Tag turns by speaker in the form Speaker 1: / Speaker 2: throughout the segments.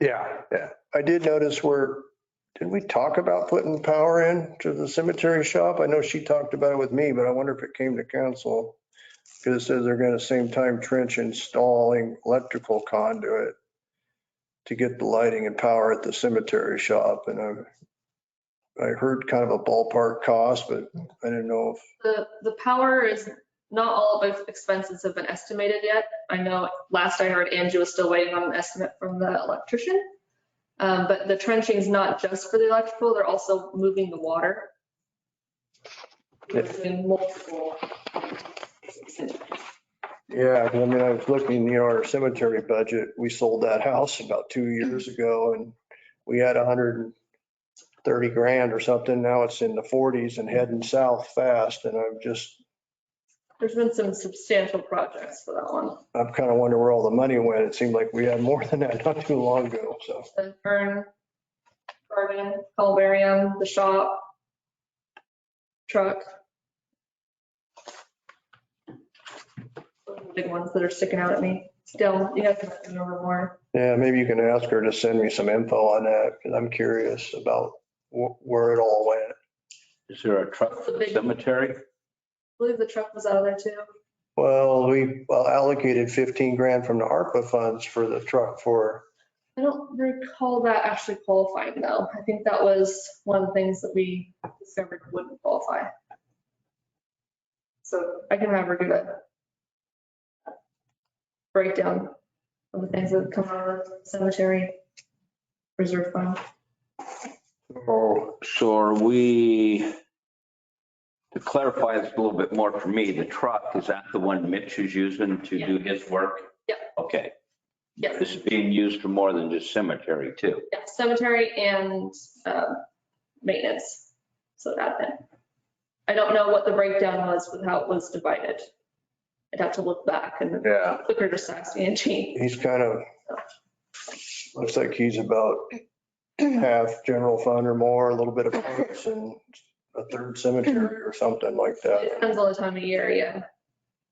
Speaker 1: Yeah, yeah. I did notice where, did we talk about putting power in to the cemetery shop? I know she talked about it with me, but I wonder if it came to council. Because it says they're going to same time trench installing electrical conduit to get the lighting and power at the cemetery shop. And I, I heard kind of a ballpark cost, but I didn't know if,
Speaker 2: The, the power is, not all of the expenses have been estimated yet. I know last I heard Angie was still waiting on an estimate from the electrician. Um, but the trenching is not just for the electrical, they're also moving the water. We're doing multiple.
Speaker 1: yeah, 'cause I mean, I was looking, you know, our cemetery budget, we sold that house about two years ago and we had a hundred and thirty grand or something. Now it's in the forties and heading south fast. And I'm just,
Speaker 2: There's been some substantial projects for that one.
Speaker 1: I'm kind of wondering where all the money went. It seemed like we had more than that not too long ago. So,
Speaker 2: The Fern, Garden, Calvarium, the shop, truck. Those are the Big ones that are sticking out at me. Still, you guys have to remember more.
Speaker 1: yeah, maybe you can ask her to send me some info on that because I'm curious about wh- where it all went.
Speaker 3: Is there a truck for the cemetery?
Speaker 2: I believe the truck was out of there too.
Speaker 1: Well, we allocated 15 grand from the ARPA funds for the truck for,
Speaker 2: I don't recall that actually qualifying though. I think that was one of the things that we discovered wouldn't qualify. So I can have her do a breakdown of the things that come out of the cemetery reserve fund.
Speaker 3: Or, Oh, so are we, to clarify this a little bit more for me, the truck, is that the one Mitch is using to do his work?
Speaker 2: Yeah.
Speaker 3: Okay,
Speaker 2: Yes,
Speaker 3: this is being used for more than just cemetery too.
Speaker 2: yeah, cemetery and um, maintenance, so admin. I don't know what the breakdown was with how it was divided. I'd have to look back and
Speaker 3: Yeah.
Speaker 2: quicker just ask Angie.
Speaker 1: he's kind of, looks like he's about half general fund or more, a little bit of parks and a third cemetery or something like
Speaker 2: It
Speaker 1: that.
Speaker 2: depends on the time of year, yeah.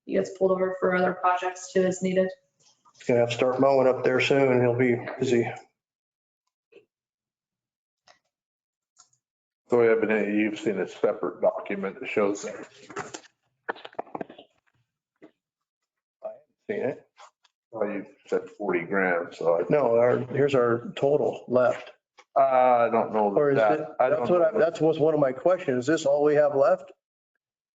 Speaker 2: He gets pulled over for other projects too as needed.
Speaker 1: He's Gonna have to start mowing up there soon. He'll be busy.
Speaker 4: So evidently you've seen a separate document that shows that.
Speaker 1: Seen it?
Speaker 4: Well, you said 40 grand, so
Speaker 1: No, our, here's our total left.
Speaker 4: I, I don't know
Speaker 1: Or is it,
Speaker 4: that. I don't
Speaker 1: that's what, I-
Speaker 4: know.
Speaker 1: that was one of my questions. Is this all we have left?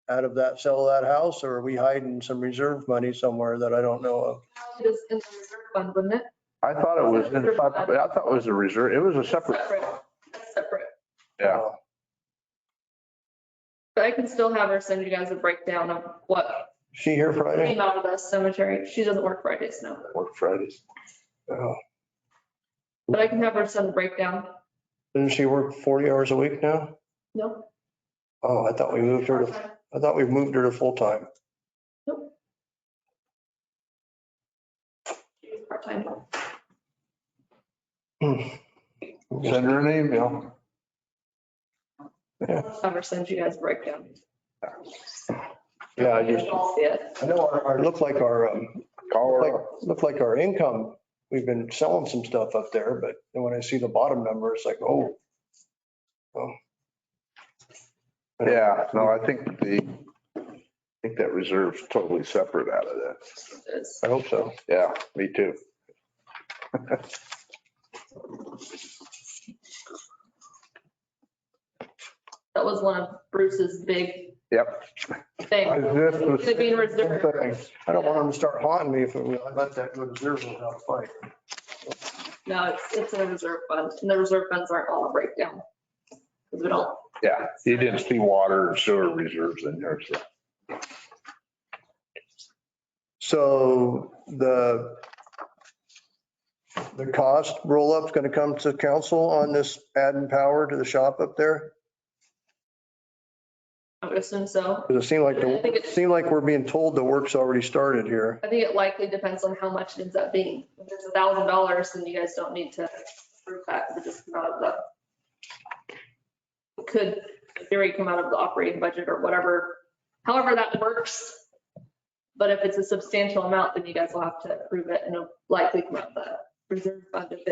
Speaker 1: Out of that, sell that house, or are we hiding some reserve money somewhere that I don't know of?
Speaker 2: It is in the reserve fund, wouldn't it?
Speaker 4: I thought it was, in- I thought it was a reserve, it was a separate,
Speaker 2: That's Separate.
Speaker 4: yeah.
Speaker 2: But I can still have her send you guys a breakdown of what
Speaker 1: Is She here Friday?
Speaker 2: came out of the cemetery. She doesn't work Fridays now,
Speaker 4: Work Fridays.
Speaker 1: Oh,
Speaker 2: but I can have her send a breakdown.
Speaker 1: Doesn't she work 40 hours a week now?
Speaker 2: No?
Speaker 1: Oh, I thought we moved her to,
Speaker 2: part-time.
Speaker 1: I thought we moved her to full-time.
Speaker 2: Nope. She's Part-time.
Speaker 4: Send her an email.
Speaker 2: I'll Have her send you guys a breakdown.
Speaker 1: Yeah, I
Speaker 2: You
Speaker 1: just,
Speaker 2: guys all see it.
Speaker 1: I know our, our, looked like our, um,
Speaker 4: Call
Speaker 1: like,
Speaker 4: her up.
Speaker 1: looked like our income, we've been selling some stuff up there, but then when I see the bottom number, it's like, oh. Well.
Speaker 4: Yeah, no, I think the, I think that reserve's totally separate out of that.
Speaker 2: It's-
Speaker 1: I hope so.
Speaker 4: Yeah, me too.
Speaker 2: That was one of Bruce's big
Speaker 4: Yep.
Speaker 2: things.
Speaker 4: This was-
Speaker 2: Could it be in reserve?
Speaker 1: I don't want them to start haunting me if we let that go to zero without a fight.
Speaker 2: No, it's, it's in a reserve fund, and the reserve funds aren't all a breakdown. Because we don't,
Speaker 4: Yeah, you didn't see water and sewer reserves in there, so.
Speaker 1: So the, the cost roll-up's going to come to council on this adding power to the shop up there?
Speaker 2: I would assume so.
Speaker 1: Because it seemed like,
Speaker 2: I think
Speaker 1: the-
Speaker 2: it's-
Speaker 1: seemed like we're being told the work's already started here.
Speaker 2: I think it likely depends on how much it ends up being. If it's a thousand dollars, then you guys don't need to prove that, but just come out of the. it Could, in theory, come out of the operating budget or whatever, however that works. But if it's a substantial amount, then you guys will have to prove it and it'll likely come out of the reserve fund if it